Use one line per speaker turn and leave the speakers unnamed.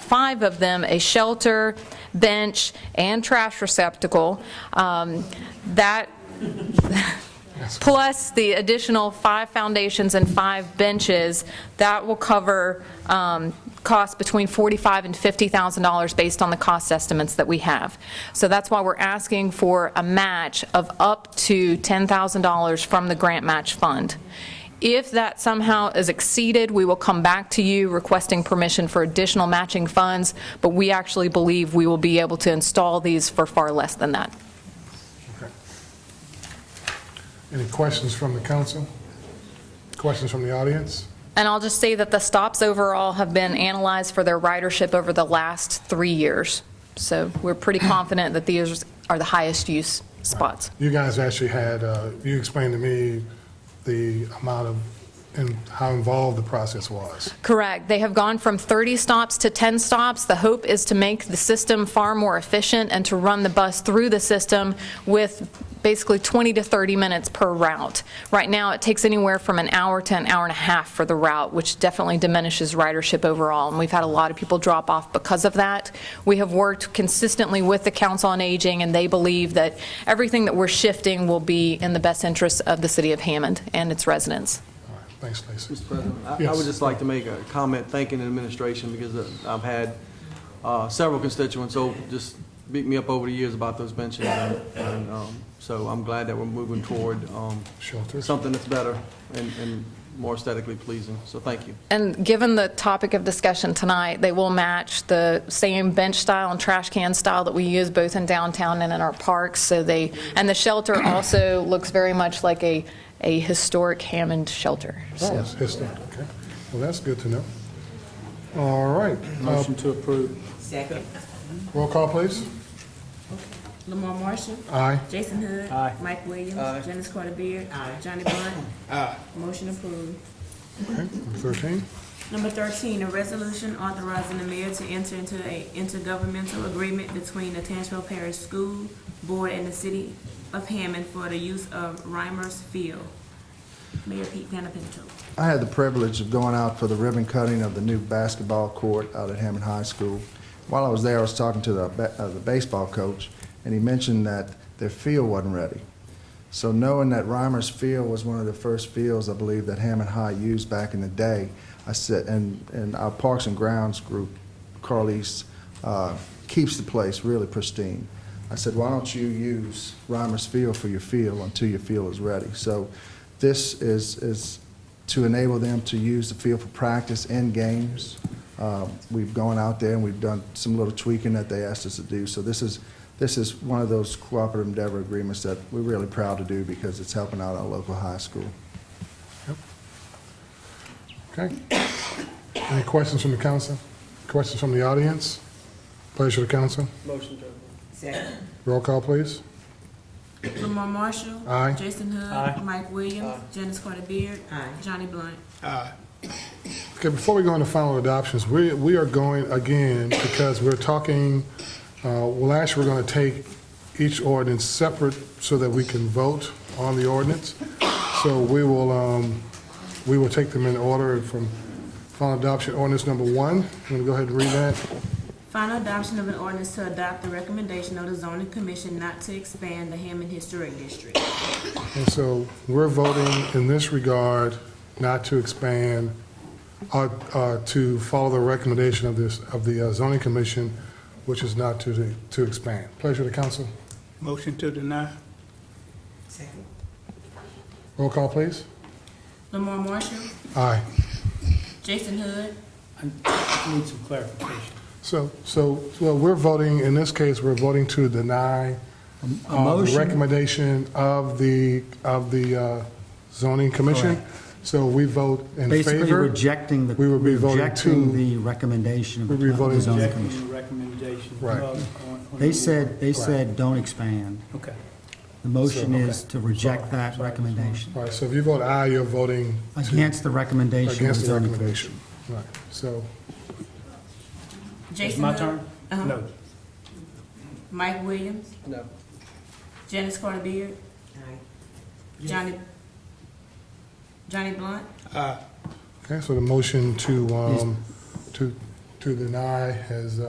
five of them a shelter, bench, and trash receptacle. Um, That plus the additional five foundations and five benches, that will cover um, costs between $45,000 and $50,000 based on the cost estimates that we have. So that's why we're asking for a match of up to $10,000 from the grant match fund. If that somehow is exceeded, we will come back to you requesting permission for additional matching funds, but we actually believe we will be able to install these for far less than that.
Okay. Any questions from the council? Questions from the audience?
And I'll just say that the stops overall have been analyzed for their ridership over the last three years. So we're pretty confident that these are the highest use spots.
You guys actually had, uh, you explained to me the amount of, and how involved the process was.
Correct. They have gone from 30 stops to 10 stops. The hope is to make the system far more efficient and to run the bus through the system with basically 20 to 30 minutes per route. Right now, it takes anywhere from an hour to an hour and a half for the route, which definitely diminishes ridership overall, and we've had a lot of people drop off because of that. We have worked consistently with the Council on Aging, and they believe that everything that we're shifting will be in the best interest of the city of Hammond and its residents.
All right, thanks, Lacey.
Mr. President, I- I
Yes.
would just like to make a comment thanking the administration because uh, I've had uh, several constituents who just beat me up over the years about those benches. and- and, um, So I'm glad that we're moving toward um,
Shelters.
something that's better and- and more aesthetically pleasing. So thank you.
And given the topic of discussion tonight, they will match the same bench style and trash can style that we use both in downtown and in our parks, so they, and the shelter also looks very much like a, a historic Hammond shelter.
Oh, it's history, okay. Well, that's good to know. All right, uh,
Motion to approve.
Second.
roll call, please.
Lamar Marshall.
Aye.
Jason Hood.
Aye.
Mike Williams.
Aye.
Janice Carter Beard. Johnny Blunt. Motion approved.
Okay, number 13.
Number thirteen, a resolution authorizing the mayor to enter into a intergovernmental agreement between the Tangipahoa Parish School Board and the city of Hammond for the use of Reimers Field. Mayor Pete Panapinto.
I had the privilege of going out for the ribbon cutting of the new basketball court out at Hammond High School. While I was there, I was talking to the, ba- uh, the baseball coach, and he mentioned that their field wasn't ready. So knowing that Reimers Field was one of the first fields, I believe, that Hammond High used back in the day, I said, and, and our Parks and Grounds group, Carlise, uh, keeps the place really pristine. I said, why don't you use Reimers Field for your field until your field is ready? So this is, is to enable them to use the field for practice and games. Uh, We've gone out there and we've done some little tweaking that they asked us to do. So this is, this is one of those cooperative endeavor agreements that we're really proud to do because it's helping out our local high school.
Okay. Any questions from the council? Questions from the audience? Pleasure to council.
Motion to
Second.
Roll call, please.
Lamar Marshall.
Aye.
Jason Hood. Mike Williams. Janice Carter Beard. Johnny Blunt.
Okay, before we go into final adoptions, we, we are going again, because we're talking, uh, well, actually, we're going to take each ordinance separate so that we can vote on the ordinance. So we will, um, we will take them in order from final adoption, ordinance number one. I'm going to go ahead and read that.
Final adoption of an ordinance to adopt the recommendation of the zoning commission not to expand the Hammond Historic District.
And so we're voting in this regard not to expand, uh, uh, to follow the recommendation of this, of the uh, zoning commission, which is not to, to expand. Pleasure to council.
Motion to deny.
Roll call, please.
Lamar Marshall,
Aye.
Jason Hood,
I need some clarification.
So, so, so we're voting, in this case, we're voting to deny
A
uh, the
motion,
recommendation of the, of the uh, zoning commission. So we vote in
Basically
favor.
rejecting the,
We would be voting
rejecting
to-
the recommendation of
We'd be voting
the zoning
rejecting
commission.
the recommendation.
Right.
of- on- on
They
the-
said, they said, don't expand.
Okay.
The motion is to reject that recommendation,
All right, so if you vote aye, you're voting
against the recommendation of the
against the
zoning commission.
recommendation. Right, so.
Jason
It's my
Hood,
turn?
uh-huh,
No.
Mike Williams,
No.
Janice Carter Beard, Johnny, Johnny Blunt,
Okay, so the motion to, um, to, to to deny has uh,